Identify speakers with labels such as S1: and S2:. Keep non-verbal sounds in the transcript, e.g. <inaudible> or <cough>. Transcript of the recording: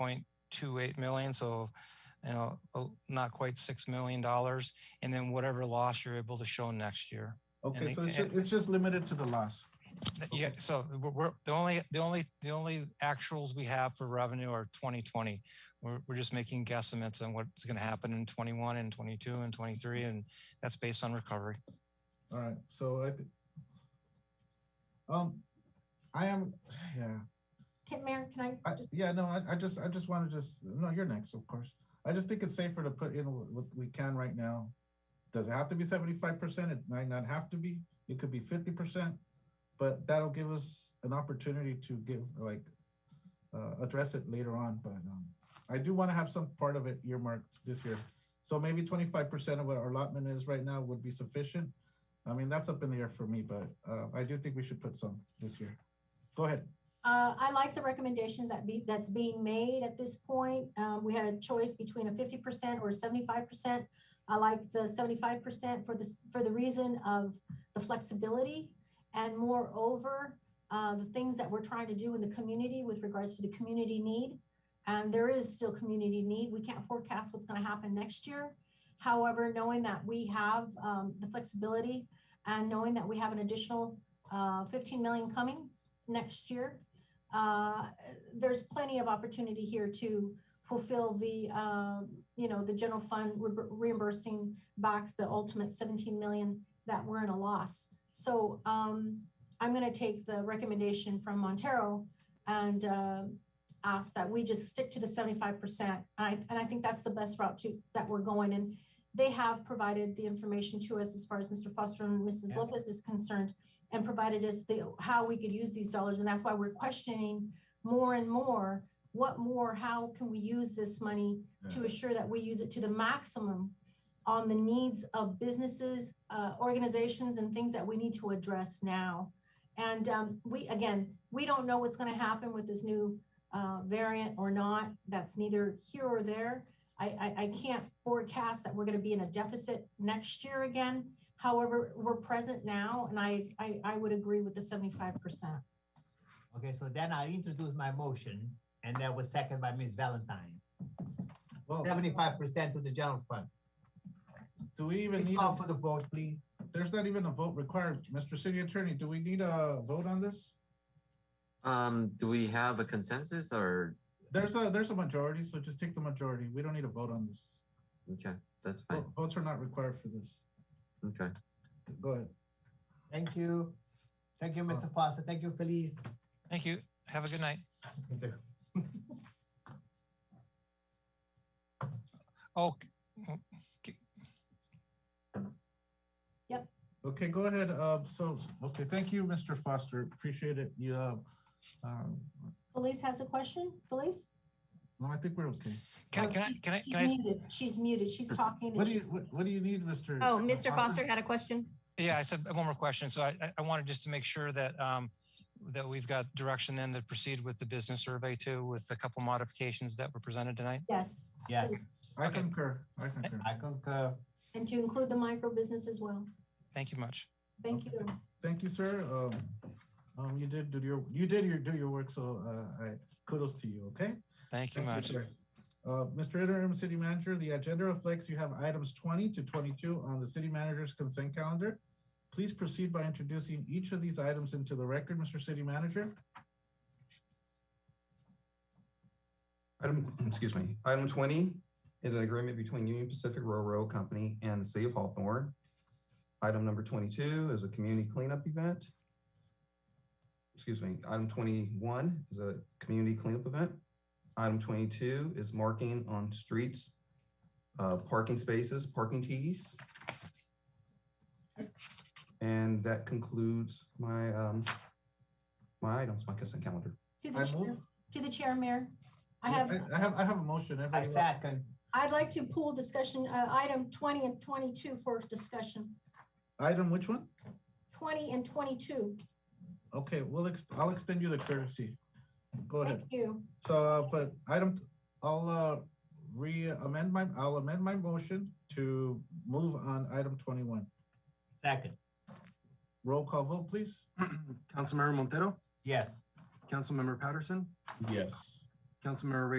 S1: 17.28 million, so, you know, a- not quite $6 million. dollars, And then whatever loss you're able to show next year.
S2: Okay,
S1: it-
S2: so it's, ju- it's just limited to the loss.
S1: Th- Yeah, so we're, we're- the only, the only, the only actuals we have for revenue are 2020. We're, we're just making guesstimates on what's going to happen in 21 and 22 and 23, and that's based on recovery.
S2: All right, so I, th- um, I am, yeah,
S3: Can, Mayor, can I,
S2: I, yeah, no, I, I just, I just want to just, no, you're next, of course. I just think it's safer to put in wh- what we can right now. Does it have to be seventy-five percent? It might not have to be. It could be fifty percent. But that'll give us an opportunity to give, like, uh, address it later on, but, um, I do want to have some part of it earmarked this year. So maybe twenty-five percent of what our allotment is right now would be sufficient. I mean, that's up in the air for me, but, uh, I do think we should put some this year. Go ahead.
S3: uh, I like the recommendations that be, that's being made at this point. Um, we had a choice between a fifty percent or seventy-five percent. I like the seventy-five percent for the, s- for the reason of the flexibility. And moreover, uh, the things that we're trying to do in the community with regards to the community need. And there is still community need. We can't forecast what's gonna happen next year. However, knowing that we have, um, the flexibility and knowing that we have an additional, uh, fifteen million coming next year, uh, there's plenty of opportunity here to fulfill the, um, you know, the general fund re- reimbursing back the ultimate 17 million that we're in a loss. So um, I'm going to take the recommendation from Montero and um ask that we just stick to the 75%. And I, and I think that's the best route to that we're going. And they have provided the information to us as far as Mr. Foster and Mrs.
S1: Yeah.
S3: Lopez is concerned and provided us the how we could use these dollars. And that's why we're questioning more and more what more, how can we use this money to assure that we use it to the maximum on the needs of businesses, uh, organizations, and things that we need to address now. And um, we, again, we don't know what's going to happen with this new uh, variant or not. That's neither here or there. I, I, I can't forecast that we're going to be in a deficit next year again. However, we're present now, and I, I, I would agree with the 75%.
S4: Okay, so then I introduce my motion, and that was seconded by Ms. Valentine. Oh.
S2: Well,
S4: Seventy-five percent to the general fund.
S2: do we even
S4: Please
S2: need? a-
S4: call for the vote, please.
S2: There's not even a vote required. Mr. City Attorney, do we need a vote on this?
S5: Um, do we have a consensus or,
S2: There's a, there's a majority, so just take the majority. We don't need a vote on this.
S5: okay, that's fine,
S2: Vo- Votes are not required for this.
S5: okay.
S2: Go ahead.
S4: Thank you. Thank you, Mr. Foster. Thank you, Felice.
S1: Thank you. Have a good night. Oh, c-
S2: Okay, go ahead. Uh, so, okay, thank you, Mr. Foster. Appreciate it. You, uh, um,
S3: Felice has a question? Felice?
S2: no, I think we're okay.
S1: can I,
S3: Oh,
S1: can I,
S3: she's-
S1: can I,
S3: she's
S1: can I? s-
S3: muted. She's muted. She's talking. and
S2: What do
S3: she-
S2: you, what, what do you need, Mr.?
S6: Oh, Mr. Foster had a question.
S1: Yeah, I said one more question. So I, I- I wanted just to make sure that, um, that we've got direction then to proceed with the business survey too, with a couple modifications that were presented tonight.
S3: Yes,
S4: Yes,
S2: I
S1: Okay.
S2: concur. I concur.
S4: I concur.
S3: and to include the micro business as well.
S1: Thank you much.
S3: Thank you.
S2: Thank you, sir. Um, um, you did do your, you did your, do your work, so, uh, I, kudos to you, okay?
S1: Thank you much.
S2: sir. Uh, Mr. Interim City Manager, the agenda reflects you have items twenty to twenty-two on the city manager's consent calendar. Please proceed by introducing each of these items into the record, Mr. City Manager.
S7: Item, <clears throat> excuse me, item twenty is an agreement between Union Pacific Railroad Company and the City of Hawthorne. Item number twenty-two is a community cleanup event. Excuse me, item twenty-one is a community cleanup event. Item twenty-two is marking on streets, uh, parking spaces, parking tees. And that concludes my, um, my items, my consent calendar.
S3: To the
S2: I move.
S3: chair, to the chair, Mayor. I have,
S2: I have, I have a motion.
S4: I
S2: Everybody-
S4: second.
S3: I'd like to pull discussion, uh, item twenty and twenty-two for discussion.
S2: Item, which one?
S3: Twenty and twenty-two.
S2: Okay, we'll, ex- I'll extend you the courtesy. Go ahead.
S3: Thank you.
S2: So, uh, but item, I'll, uh, re-amend my, I'll amend my motion to move on item twenty-one.
S4: Second,
S2: Roll call vote, please.
S8: Councilmember Montero,
S4: yes.
S8: Councilmember Patterson,
S2: Yes.
S8: Councilmember Ray